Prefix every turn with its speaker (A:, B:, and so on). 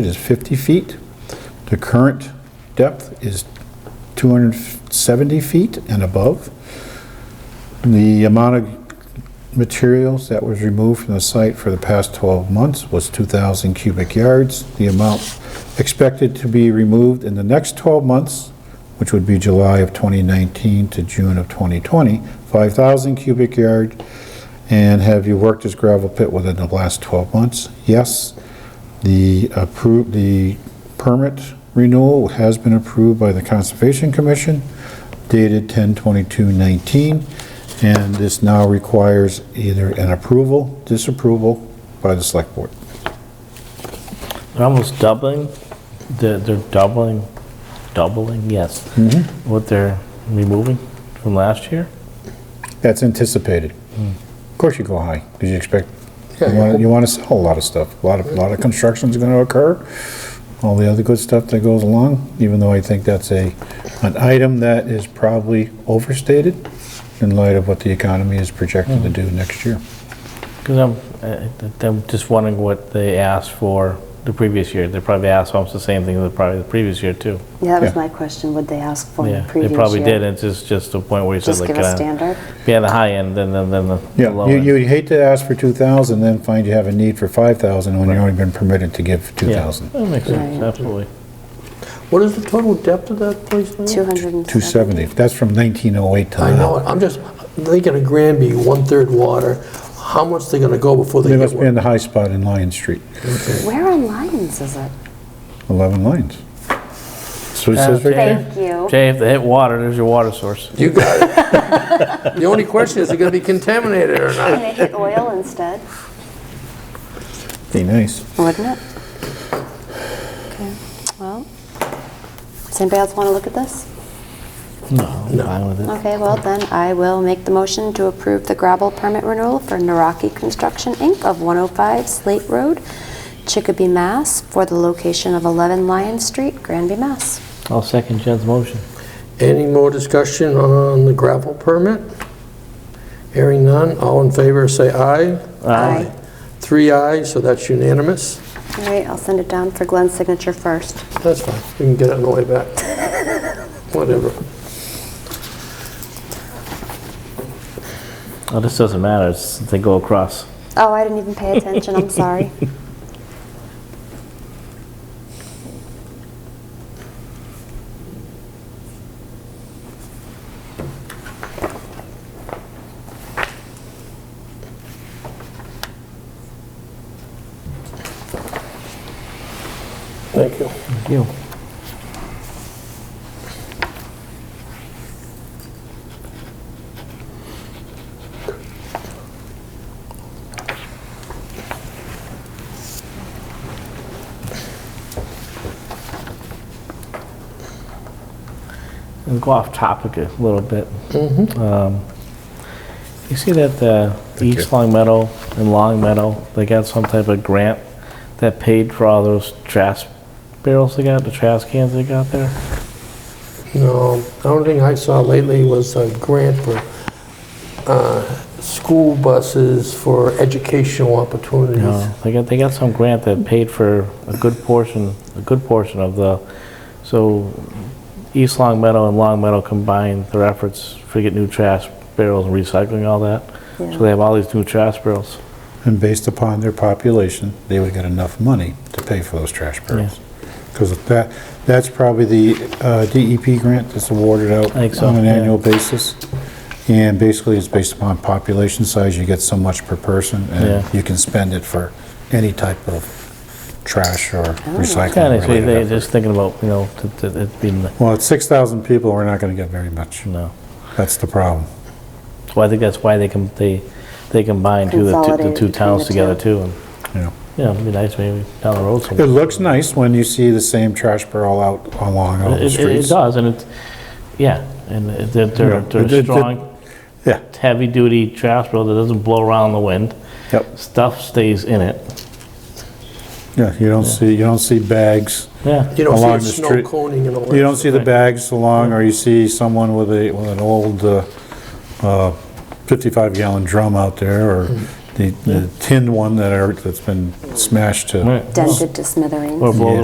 A: It is 50 feet. The current depth is 270 feet and above. The amount of materials that was removed from the site for the past 12 months was 2,000 cubic yards. The amount expected to be removed in the next 12 months, which would be July of 2019 to June of 2020, 5,000 cubic yard. And have you worked this gravel pit within the last 12 months? Yes. The approved, the permit renewal has been approved by the Conservation Commission dated 10/22/19, and this now requires either an approval, disapproval by the Select Board.
B: Almost doubling, they're, they're doubling, doubling, yes. What they're removing from last year?
A: That's anticipated. Of course you go high, because you expect, you
C: Hmm. Yeah,
A: wanna-
C: yeah.
A: you want to sell a lot of stuff. A lot of, a lot of construction's going to occur, all the other good stuff that goes along, even though I think that's a, an item that is probably overstated in light of what the economy is projected to
C: Hmm.
A: do next year.
B: Because I'm, I- I- I'm just wondering what they asked for the previous year. They probably asked almost the same thing that probably the previous year too.
D: Yeah, that was
A: Yeah.
D: my question, would they ask for in
B: Yeah,
D: the previous year?
B: They probably did, it's just, just the point where you said
D: Just
B: like.
D: give a standard?
B: Yeah, the high end, then, then, then the the
A: Yeah,
B: low
A: you,
B: end.
A: you'd hate to ask for 2,000, then find you have a need for 5,000 when you've only been permitted to give
B: Yeah,
A: 2,000.
B: That makes sense,
D: Right.
B: absolutely.
C: What is the total depth of that place now?
D: 270?
A: 270, that's from 1908 to
C: I know,
A: now.
C: it. I'm just thinking of Granby, one-third water, how much they gonna go before they
A: They
C: get
A: must be in
C: one?
A: the high spot in Lion Street,
D: Where on Lyons is it?
A: 11 Lions. So it says right there.
D: Thank you.
B: Jay, if they hit water, there's your water source.
C: You got it. The only question is, is it gonna be contaminated or not?
D: Can they hit oil instead?
A: Be nice.
D: Wouldn't it? Okay, well, does anybody else want to look at this?
B: No, I'm fine with it.
D: Okay, well then, I will make the motion to approve the gravel permit renewal for Naraki Construction, Inc. of 105 Slate Road, Chicopee, Mass. for the location of 11 Lion Street, Granby, Mass.
B: I'll second Jen's motion.
C: Any more discussion on the gravel permit? Hearing none, all in favor, say aye.
D: Aye.
C: Three ayes, so that's unanimous.
D: All right, I'll send it down for Glenn's signature first.
C: That's fine, we can get it on the way back. Whatever.
B: Well, this doesn't matter, it's, they go across.
D: Oh, I didn't even pay attention, I'm sorry.
C: Thank you.
B: You. And go off topic a little bit. Um, You see that uh, East Long Meadow and Long Meadow, they got some type of grant that paid for all those trash barrels they got, the trash cans they got there?
C: No, the only thing I saw lately was a grant for uh, school buses for educational opportunities.
B: No, they got, they got some grant that paid for a good portion, a good portion of the, so East Long Meadow and Long Meadow combined their efforts to get new trash barrels and recycling all that.
D: Yeah.
B: So they have all these new trash barrels.
A: And based upon their population, they would get enough money to pay for those trash barrels. Because that, that's probably the uh, DEP grant that's awarded out
B: I think so,
A: on an
B: yeah.
A: annual basis. And basically, it's based upon population size, you get so much per person,
B: Yeah.
A: and you can spend it for any type of trash or
B: Oh, Kind of,
A: recycling
B: they're
A: related.
B: just thinking about, you know, that- that it being,
A: Well, at 6,000 people, we're not going to get very much.
B: no.
A: That's the problem.
B: So I think that's why they can, they, they combine two, the two- the
D: Consolidated
B: two
D: between
B: towns
D: the
B: together
D: two.
B: too. And,
A: you know.
B: you know, it'd be nice maybe down the road
A: It
B: somewhere.
A: looks nice when you see the same trash barrel out along all
B: It,
A: the
B: it- it
A: streets.
B: does, and it's, yeah, and it- they're, they're,
A: Yeah, it- it-
B: they're
A: it-
B: strong,
A: Yeah,
B: heavy-duty trash barrel that doesn't blow around the wind.
A: yep.
B: Stuff stays in it.
A: Yeah, you don't see, you don't see bags.
B: Yeah,
C: You don't
A: Along
C: see
A: the
C: it snow
A: street.
C: coning and all that.
A: You don't see the
B: Right.
A: bags along, or you see someone uh,
B: Mm.
A: with a, with an old 55-gallon drum out there, or
E: the the tin one that are, that's been smashed to
D: Right.
A: dented to smithereens.
D: Or blow the